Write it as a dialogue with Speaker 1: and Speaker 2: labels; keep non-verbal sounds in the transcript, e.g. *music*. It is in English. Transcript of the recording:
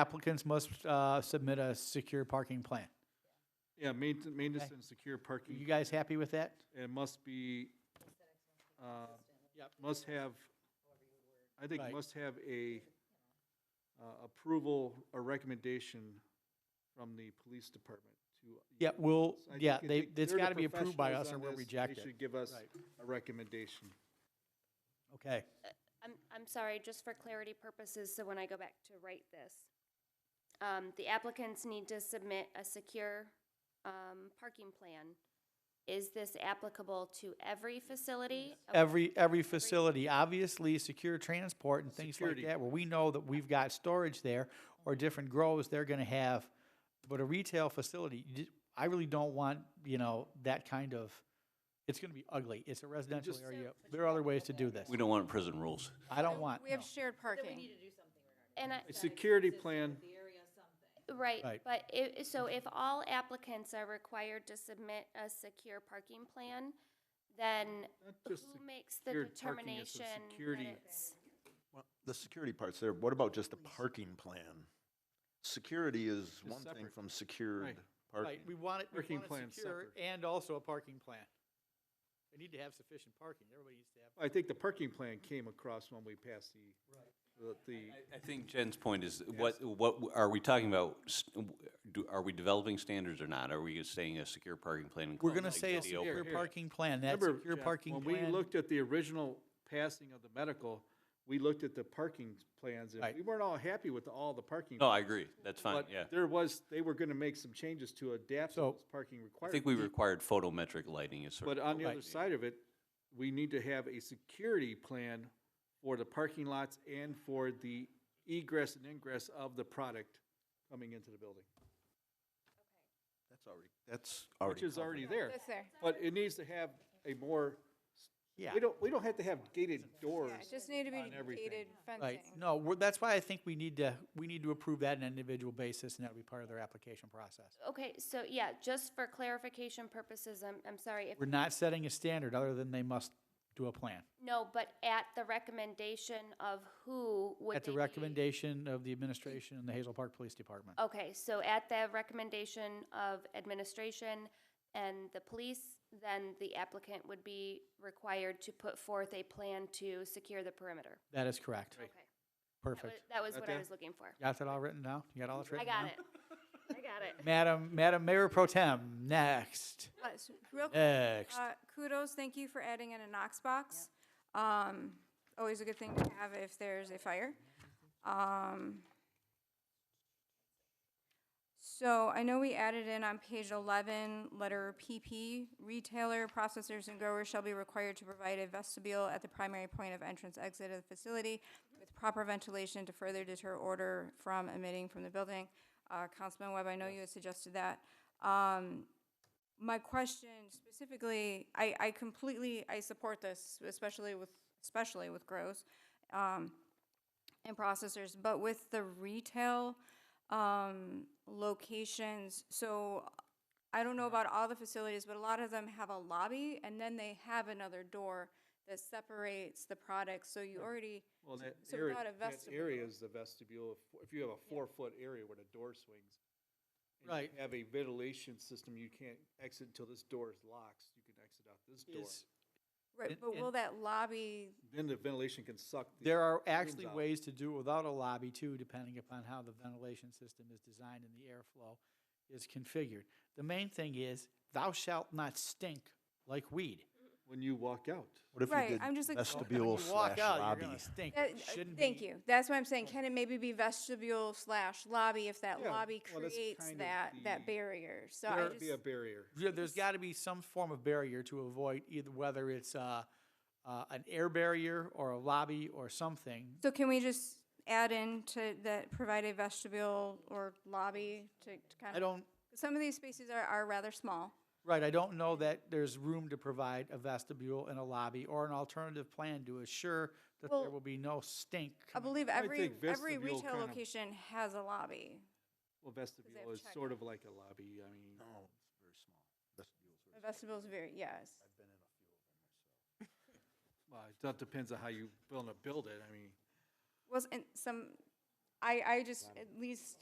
Speaker 1: applicants must uh, submit a secure parking plan.
Speaker 2: Yeah, mainten- maintenance and secure parking.
Speaker 1: You guys happy with that?
Speaker 2: It must be, uh,
Speaker 1: Yep.
Speaker 2: must have, I think
Speaker 1: Right.
Speaker 2: must have a uh, approval or recommendation from the police department to.
Speaker 1: Yeah, we'll,
Speaker 2: So I
Speaker 1: yeah,
Speaker 2: think- I
Speaker 1: they,
Speaker 2: think
Speaker 1: it's
Speaker 2: they're the
Speaker 1: gotta be approved by
Speaker 2: professionals
Speaker 1: us or
Speaker 2: on
Speaker 1: we'll
Speaker 2: this.
Speaker 1: reject
Speaker 2: They
Speaker 1: it.
Speaker 2: should give us
Speaker 1: Right.
Speaker 2: a recommendation.
Speaker 1: Okay,
Speaker 3: I'm, I'm sorry, just for clarity purposes, so when I go back to write this, um, the applicants need to submit a secure, um, parking plan. Is this applicable to every facility? Okay,
Speaker 1: every, every facility, obviously, secure transport and things like
Speaker 2: Security.
Speaker 1: that, where we know that we've got storage there or different grows, they're gonna have, but a retail facility, you ju- I really don't want, you know, that kind of, it's gonna be ugly. It's a residential
Speaker 2: just-
Speaker 1: area. There are other ways to do this.
Speaker 4: We don't want prison rules.
Speaker 1: I don't want,
Speaker 5: We have
Speaker 1: no.
Speaker 5: shared parking.
Speaker 3: And I,
Speaker 2: A security plan,
Speaker 3: right,
Speaker 1: Right.
Speaker 3: but i- so if all applicants are required to submit a secure parking plan, then
Speaker 2: not
Speaker 3: who
Speaker 2: just, sec-
Speaker 3: makes the
Speaker 2: secured parking, it's a
Speaker 3: determination that
Speaker 2: security-
Speaker 3: it's?
Speaker 6: Well, The security part's there. What about just the parking plan? Security is one thing
Speaker 2: separate.
Speaker 6: from secured
Speaker 2: Right.
Speaker 6: parking.
Speaker 1: Right, we want it, we
Speaker 2: Parking
Speaker 1: want it
Speaker 2: plan's
Speaker 1: secure
Speaker 2: separate.
Speaker 1: and also a parking plan. They need to have sufficient parking. Everybody needs to have.
Speaker 2: I think the parking plan came across when we passed the, the- the,
Speaker 4: I think Jen's point is, what, what, w- are we talking about, s- w- do, are we developing standards or not? Are we saying a secure parking plan? and
Speaker 1: We're
Speaker 4: close
Speaker 1: gonna
Speaker 4: the
Speaker 1: say a
Speaker 4: video?
Speaker 1: secure parking plan, that
Speaker 2: Remember,
Speaker 1: secure
Speaker 2: Jeff,
Speaker 1: parking
Speaker 2: When we
Speaker 1: plan,
Speaker 2: looked at the original passing of the medical, we looked at the parking plans, and
Speaker 1: Right.
Speaker 2: we weren't all happy with all the parking.
Speaker 4: No, I agree, that's fine,
Speaker 2: But
Speaker 4: yeah.
Speaker 2: there was, they were gonna make some changes to adapt
Speaker 1: So-
Speaker 2: those parking
Speaker 4: I think we
Speaker 2: requirements.
Speaker 4: required photometric lighting as sort
Speaker 2: But
Speaker 4: of.
Speaker 2: on the
Speaker 1: Right.
Speaker 2: other side of it, we need to have a security plan for the parking lots and for the egress and ingress of the product coming into the building,
Speaker 6: That's already, that's already.
Speaker 2: which is
Speaker 6: covered.
Speaker 2: already there.
Speaker 5: That's there.
Speaker 2: But it needs to have a more,
Speaker 1: yeah,
Speaker 2: we don't, we don't have to have gated doors.
Speaker 5: Yeah, it just need to
Speaker 2: on
Speaker 5: be
Speaker 2: everything.
Speaker 5: gated fencing.
Speaker 1: right. No, we're, that's why I think we need to, we need to approve that on an individual basis, and that'll be part of their application process.
Speaker 3: Okay, so yeah, just for clarification purposes, I'm, I'm sorry, if
Speaker 1: We're not setting a standard other than they must do a plan.
Speaker 3: No, but at the recommendation of who would
Speaker 1: At the
Speaker 3: they be?
Speaker 1: recommendation of the administration and the Hazel Park Police Department.
Speaker 3: Okay, so at the recommendation of administration and the police, then the applicant would be required to put forth a plan to secure the perimeter.
Speaker 1: That is correct.
Speaker 3: Okay, That was-
Speaker 1: Perfect.
Speaker 3: That was what I
Speaker 2: Okay.
Speaker 3: was looking for.
Speaker 1: Got that all written down? You got all this
Speaker 3: I
Speaker 1: written down?
Speaker 3: got it. I got it.
Speaker 1: Madam, Madam Mayor Pro Tem, next,
Speaker 3: *laughs*
Speaker 5: Uh, s- Real quick,
Speaker 1: next.
Speaker 5: uh, kudos, thank you for adding in a Knox box. Um, Always a good thing to have if there's a fire. Um, So I know we added in on page 11, letter PP, retailer, processors, and growers shall be required to provide a vestibule at the primary point of entrance exit of the facility with proper ventilation to further deter odor from emitting from the building. Uh, Councilman Webb, I know you had suggested that. Um, my question specifically, I, I completely, I support this, especially with, especially with grows, um, and processors, but with the retail, um, locations, so I don't know about all the facilities, but a lot of them have a lobby, and then they have another door that separates the products, so you already,
Speaker 2: Well, that
Speaker 5: so
Speaker 2: area,
Speaker 5: without a
Speaker 2: that area
Speaker 5: vestibule.
Speaker 2: is the vestibule. If- If you have a four-foot area where the door swings. and you
Speaker 1: Right.
Speaker 2: Have a ventilation system, you can't exit until this door is locked. You can exit out this door.
Speaker 1: Is-
Speaker 5: right,
Speaker 1: And-
Speaker 5: but will
Speaker 1: and-
Speaker 5: that lobby,
Speaker 2: Then the ventilation can suck. the-
Speaker 1: There are actually
Speaker 2: out.
Speaker 1: ways to do it without a lobby too, depending upon how the ventilation system is designed and the airflow is configured. The main thing is thou shalt not stink like weed.
Speaker 2: When you walk out.
Speaker 6: What if
Speaker 5: Right,
Speaker 6: we did
Speaker 5: I'm just like- Well,
Speaker 1: When *laughs*
Speaker 6: vestibule
Speaker 1: you walk
Speaker 6: slash
Speaker 1: out,
Speaker 6: lobby?
Speaker 1: You're gonna stink.
Speaker 5: that-
Speaker 1: It shouldn't
Speaker 5: Uh, thank
Speaker 1: be-
Speaker 5: you, that's what I'm saying, can it maybe be vestibule slash lobby if that
Speaker 2: Yeah,
Speaker 5: lobby
Speaker 2: well, that's
Speaker 5: creates
Speaker 2: kind of
Speaker 5: that,
Speaker 2: the-
Speaker 5: that barrier, so I
Speaker 2: There
Speaker 5: just.
Speaker 2: be a barrier.
Speaker 1: Yeah, there's got to be some form of barrier to avoid either whether it's uh, uh, an air barrier or a lobby or something.
Speaker 5: So can we just add in to that provide a vestibule or lobby to to kind
Speaker 1: I
Speaker 5: of,
Speaker 1: don't,
Speaker 5: some of these spaces are, are rather small.
Speaker 1: right, I don't know that there's room to provide a vestibule and a lobby or an alternative plan to assure that there
Speaker 5: Well,
Speaker 1: will be no stink.
Speaker 5: I
Speaker 1: coming
Speaker 5: believe
Speaker 2: I
Speaker 5: every,
Speaker 2: think
Speaker 5: every
Speaker 2: vestibule
Speaker 5: retail
Speaker 2: kind of-
Speaker 5: location has a lobby.
Speaker 2: Well, vestibule
Speaker 5: have
Speaker 2: is
Speaker 5: check-
Speaker 2: sort of like a lobby. I mean,
Speaker 6: No, it's very small. Vestibule's very
Speaker 5: A vestible's very, yes.
Speaker 2: well, it depends on how you build a build it. I mean,
Speaker 5: Wasn't some, I, I just, at least